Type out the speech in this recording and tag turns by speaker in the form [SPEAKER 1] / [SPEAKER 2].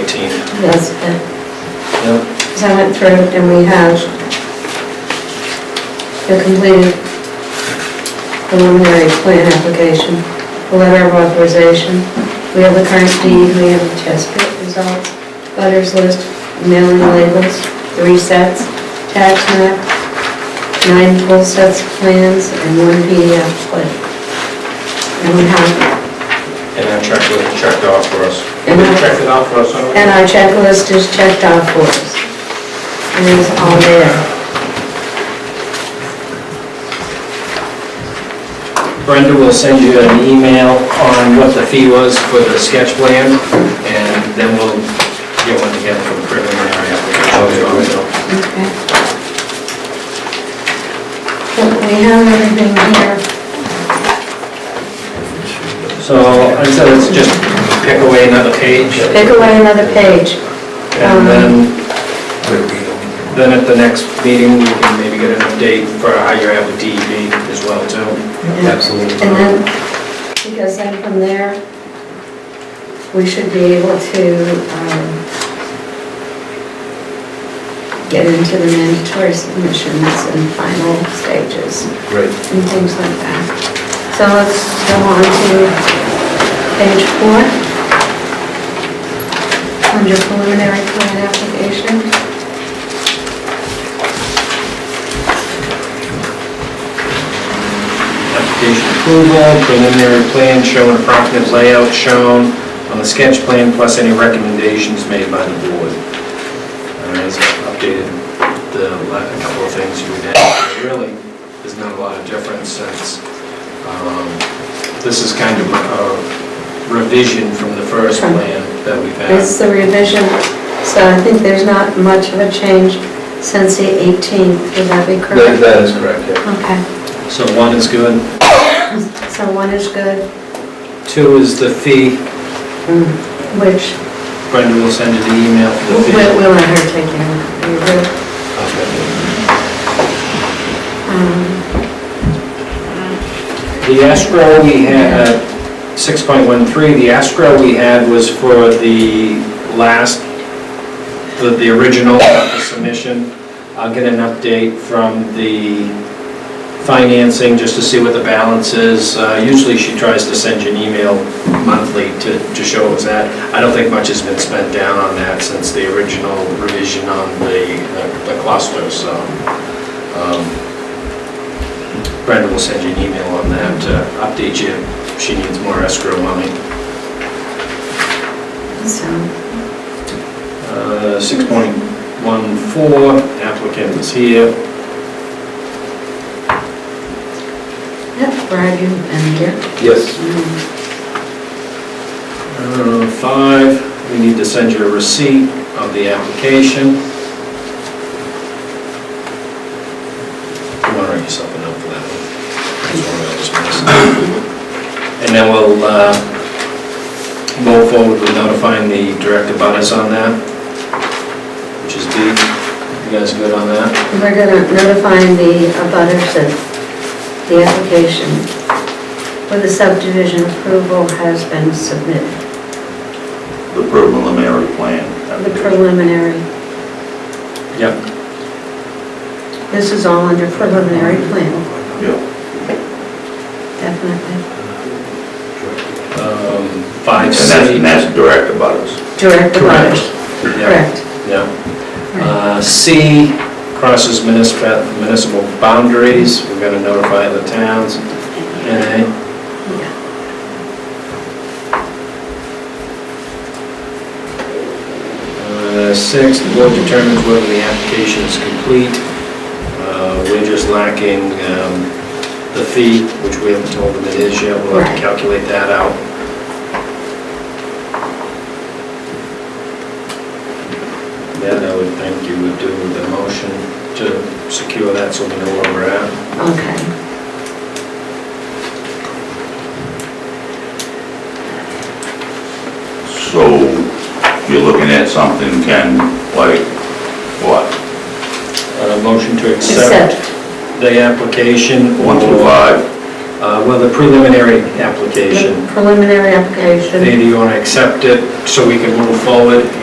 [SPEAKER 1] 18th.
[SPEAKER 2] That's it.
[SPEAKER 1] Yep.
[SPEAKER 2] Because I went through and we have the completed preliminary plan application, the letter of authorization, we have the current deed, we have the test pit results, butters list, mailing labels, three sets, tax map, nine full sets of plans, and one PDF plan. And we have,
[SPEAKER 1] And that checklist checked off for us.
[SPEAKER 2] And
[SPEAKER 3] They
[SPEAKER 2] I-
[SPEAKER 3] checked it out for us already.
[SPEAKER 2] and our checklist is checked off for us. And it's all there.
[SPEAKER 4] Brenda will send you an email on what the fee was for the sketch plan, and then we'll get one together for the preliminary application.
[SPEAKER 2] Okay. But We have everything here.
[SPEAKER 4] So I said, let's just pick away another page,
[SPEAKER 2] Pick away another page. Um,
[SPEAKER 4] and then, then at the next meeting, we can maybe get an update for how you're at with DEP E as well, too.
[SPEAKER 2] Absolutely. And then, because then from there, we should be able to um, get into the mandatory submissions and final stages
[SPEAKER 1] Great.
[SPEAKER 2] and things like that. So let's go on to page four. Under preliminary plan application.
[SPEAKER 4] Application approval, preliminary plan showing approximate layout shown on the sketch plan, plus any recommendations made by the board. And I updated the, la- a couple of things you had, really, there's not a lot of difference since, um, this is kind of a revision from the first plan that we've had.
[SPEAKER 2] It's the revision, so I think there's not much of a change since the 18th, would that be correct?
[SPEAKER 1] That is correct, yeah.
[SPEAKER 2] Okay,
[SPEAKER 4] So one is good,
[SPEAKER 2] so one is good,
[SPEAKER 4] two is the fee,
[SPEAKER 2] which
[SPEAKER 4] Brenda will send you the email for the
[SPEAKER 2] we'll
[SPEAKER 4] fee.
[SPEAKER 2] we'll let her take care of. We will. Um,
[SPEAKER 4] The escrow we had, 6.13, the escrow we had was for the last, the the original submission. I'll get an update from the financing just to see what the balance is. Uh, Usually she tries to send you an email monthly to to show what's at. I don't think much has been spent down on that since the original revision on the the cluster, so. um, Brenda will send you an email on that to update you if she needs more escrow money.
[SPEAKER 2] So,
[SPEAKER 4] Uh, 6.14, applicant is here.
[SPEAKER 2] yeah, Brad, you've been here.
[SPEAKER 1] Yes.
[SPEAKER 2] Um,
[SPEAKER 4] Uh, 5, we need to send you a receipt of the application. You want to write yourself a note for that one? That's one I was missing. And then we'll uh, move forward with notifying the direct abutters on that, which is D. You guys good on that?
[SPEAKER 2] We're gonna notify the abutters that the application for the subdivision approval has been submitted.
[SPEAKER 5] the preliminary plan.
[SPEAKER 2] The preliminary,
[SPEAKER 4] Yep.
[SPEAKER 2] this is all under preliminary plan,
[SPEAKER 5] Yeah,
[SPEAKER 2] definitely.
[SPEAKER 4] Um, Five
[SPEAKER 5] and
[SPEAKER 4] C.
[SPEAKER 5] that's, and that's direct about us.
[SPEAKER 2] Direct the
[SPEAKER 4] Correct. Yep,
[SPEAKER 2] butters, correct.
[SPEAKER 4] yep. Uh, C crosses municipal, municipal boundaries, we're gonna notify the towns. NA,
[SPEAKER 2] Yeah.
[SPEAKER 4] Uh, six, the board determines whether the application is complete. Uh, We're just lacking um, the fee, which we haven't told them it is yet, we'll have
[SPEAKER 2] Right.
[SPEAKER 4] to calculate that out. That I would think you would do the motion to secure that so we know where we're at.
[SPEAKER 2] Okay.
[SPEAKER 5] So you're looking at something, Ken, like what?
[SPEAKER 4] A Uh, motion to accept
[SPEAKER 2] Except
[SPEAKER 4] the application
[SPEAKER 5] One through
[SPEAKER 4] or,
[SPEAKER 5] five?
[SPEAKER 4] uh, Well, the preliminary
[SPEAKER 2] the
[SPEAKER 4] application.
[SPEAKER 2] preliminary application.
[SPEAKER 4] Either you want to accept it so we can move forward